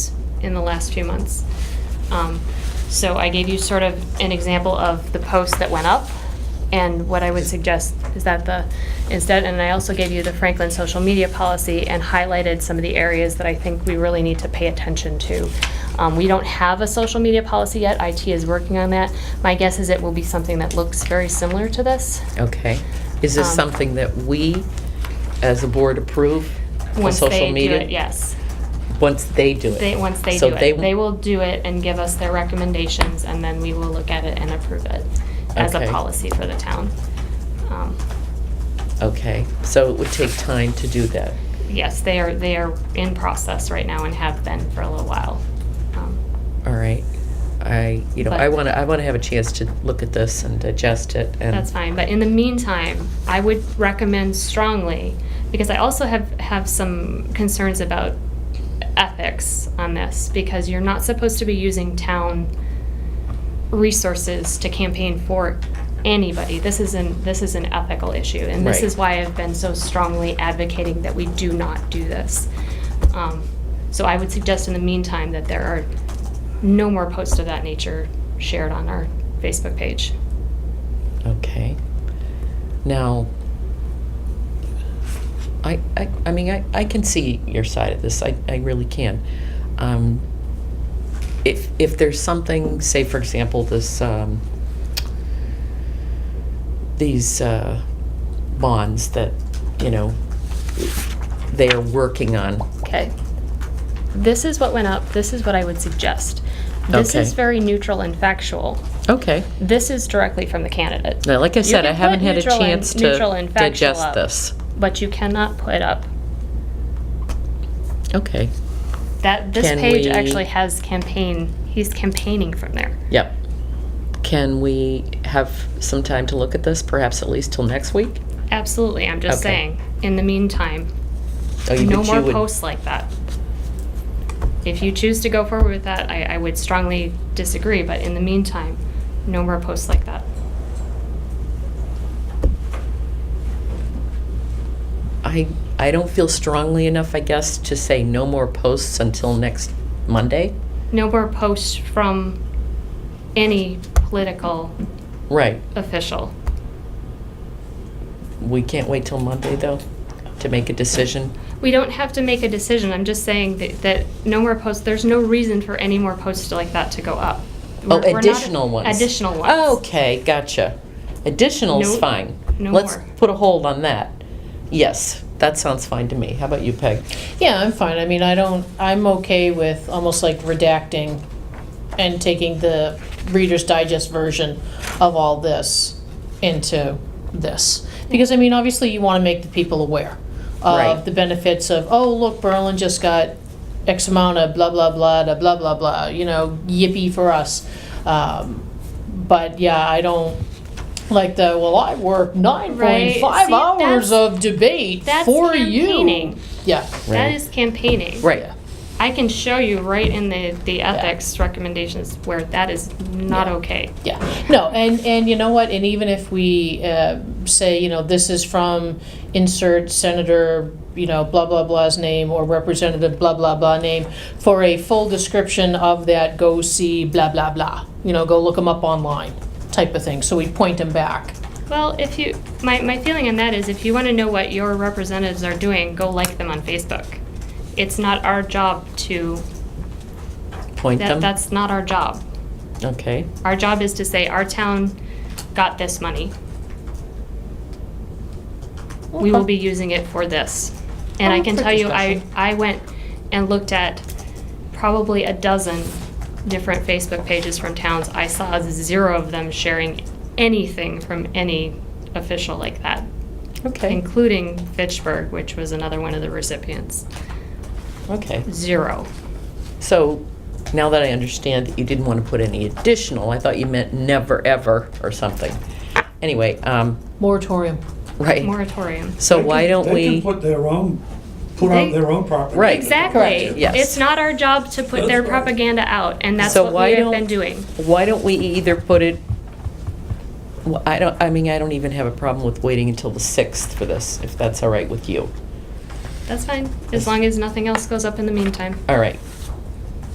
in the last few months. Um, So I gave you sort of an example of the post that went up, and what I would suggest is that the, instead, and I also gave you the Franklin social media policy and highlighted some of the areas that I think we really need to pay attention to. Um, We don't have a social media policy yet, IT is working on that. My guess is it will be something that looks very similar to this. Okay. Is this Um, something that we, as a board, approve? for Once social they do media? it, Yes. Once they do it? They, once they do So it, they will do it and give us their recommendations, and then we will look at it and approve it as a Okay. policy for the town. Um, Okay, so it would take time to do that. Yes, they are, they are in process right now and have been for a little while. Um, All right. I, you know, I But- want to, I want to have a chance to look at this and digest it and. That's fine, but in the meantime, I would recommend strongly, because I also have, have some concerns about ethics on this, because you're not supposed to be using town resources to campaign for anybody. This is an, this is an ethical issue, and this Right. is why I've been so strongly advocating that we do not do this. Um, So I would suggest in the meantime that there are no more posts of that nature shared on our Facebook page. Okay. Now, I, I, I mean, I, I can see your side of this. I, I really can. Um, if, if there's something, say, for example, this, um, these, uh, bonds that, you know, they're working on. Okay. This is what went up. This is what I would suggest. This Okay. is very neutral and factual. Okay. This is directly from the candidate. Now, like I You said, I can haven't put had a neutral and- chance neutral to and factual digest up, this. But you cannot put up, Okay. that, this Can page we- actually has campaign, he's campaigning from there. Yep. Can we have some time to look at this, perhaps at least till next week? Absolutely, I'm just Okay. saying. In the meantime, Oh, you- no but you more would- posts like that. If you choose to go forward with that, I, I would strongly disagree, but in the meantime, no more posts like that. I, I don't feel strongly enough, I guess, to say no more posts until next Monday. No more posts from any political Right. official. We can't wait till Monday, though, to make a decision. We don't have to make a decision, I'm just saying that, that no more posts, there's no reason for any more posts like that to go up. Oh, We're- we're not- additional ones. Oh, Additional ones. Okay, gotcha. Additional's No- fine. no Let's more. put a hold on that. Yes, that sounds fine to me. How about you, Peg? Yeah, I'm fine. I mean, I don't, I'm okay with almost like redacting and taking the Reader's Digest version of all this into this. Because, I mean, obviously you want to make the people aware Right. of the benefits of, oh, look, Berlin just got X amount of blah, blah, blah, da blah, blah, blah, you know, yippee for us. Um, But yeah, I don't, like the, well, I worked nine point Right. five See, that's- hours of debate that's for you. campaigning. Yeah. That Right. is campaigning. Right. I can show you right in the, the ethics recommendations where that is not Yeah. okay. Yeah, no, and, and you know what, and even if we uh, say, you know, this is from insert Senator, you know, blah, blah, blah's name, or Representative blah, blah, blah name, for a full description of that, go see blah, blah, blah, you know, go look them up online, type of thing, so we point them back. Well, if you, my, my feeling on that is if you want to know what your representatives are doing, go like them on Facebook. It's not our job to, Point that, them? that's not our job. Okay. Our job is to say, our town got this money. We will be using it for this. And I Oh, can for tell you, I, discussion. I went and looked at probably a dozen different Facebook pages from towns. I saw zero of them sharing anything from any official like that, Okay, including Fitchburg, which was another one of the recipients. okay. Zero. So now that I understand that you didn't want to put any additional, I thought you meant never, ever, or something. Anyway, um, Moratorium. right. Moratorium. So They why can- don't They we, can put their own, put out They- their own property. Right. Exactly. Correct. Yes. It's not our job to put their propaganda out, and that's So what why we have don't- been doing. why don't we either put it, Well, I don't, I mean, I don't even have a problem with waiting until the 6th for this, if that's all right with you. That's fine, as long as nothing else goes up in the meantime. All right,